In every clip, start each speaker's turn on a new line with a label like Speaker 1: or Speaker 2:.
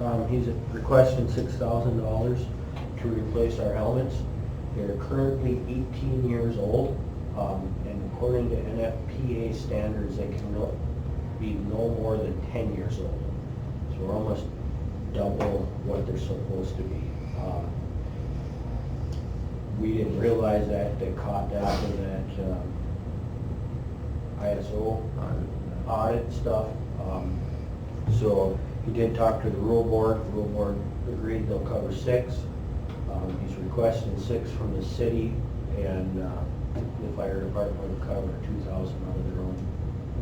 Speaker 1: Um, he's requesting six thousand dollars to replace our helmets. They're currently eighteen years old, um, and according to NFPA standards, they can no- be no more than ten years old. So we're almost double what they're supposed to be. Um, We didn't realize that, they caught that in that, um, ISO audit stuff. Um, So he did talk to the rule board, the rule board agreed they'll cover six. Um, He's requesting six from the city and uh, the fire department will cover two thousand out of their own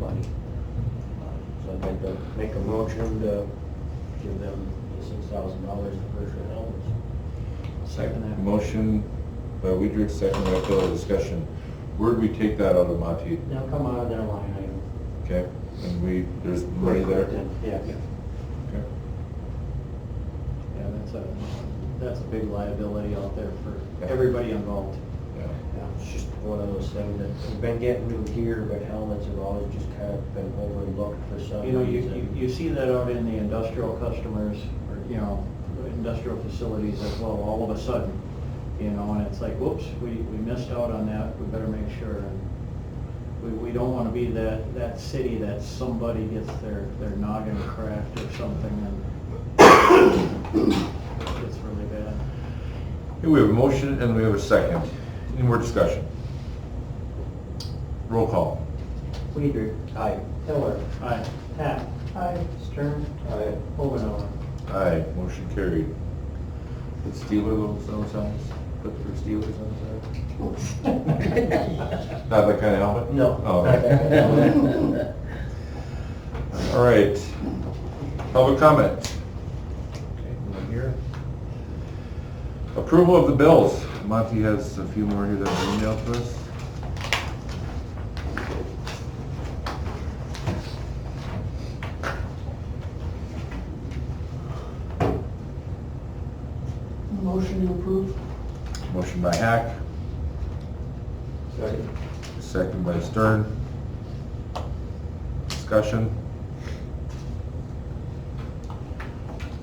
Speaker 1: money. Uh, So I'd like to make a motion to give them the six thousand dollars to purchase their helmets. Second that.
Speaker 2: Motion by Weidrich, second by Phil, discussion. Where'd we take that out of Monty?
Speaker 1: Now come out of their line item.
Speaker 2: Okay, and we, there's money there?
Speaker 1: Yeah.
Speaker 2: Okay.
Speaker 1: Yeah, that's a, that's a big liability out there for
Speaker 2: Yeah.
Speaker 1: everybody involved.
Speaker 2: Yeah.
Speaker 1: Yeah, it's just one of those things that, we've been getting new gear, but helmets have always just kind of been overlooked for some
Speaker 3: You know, you, you-
Speaker 1: reason.
Speaker 3: you see that out in the industrial customers, or, you know, industrial facilities as well, all of a sudden, you know, and it's like, whoops, we, we missed out on that, we better make sure. and We, we don't wanna be that, that city that somebody gets their, their noggin cracked or something and it's really bad.
Speaker 2: Okay, we have a motion and we have a second. Any more discussion? Roll call.
Speaker 1: Weider. Aye.
Speaker 3: Hiller. Aye. Hack. Aye. Stern.
Speaker 1: Aye.
Speaker 3: Ovindor.
Speaker 2: Aye, motion carried. The Steelers, those signs, put the Steelers on the side? Not that kind of helmet?
Speaker 1: No.
Speaker 2: Oh, okay. All right. Public comment. Okay, no one here. Approval of the bills. Monty has a few more here that were emailed to us.
Speaker 3: Motion to approve.
Speaker 2: Motion by Hack,
Speaker 1: Second.
Speaker 2: second by Stern. Discussion.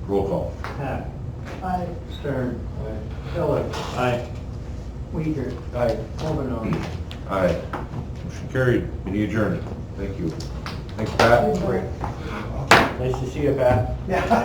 Speaker 2: Roll call.
Speaker 3: Hack. Aye. Stern. Aye. Hiller. Aye. Weider.
Speaker 1: Aye.
Speaker 3: Ovindor.
Speaker 2: Aye. Motion carried. Meeting adjourned. Thank you. Thanks, Pat.
Speaker 1: Nice to see you, Pat.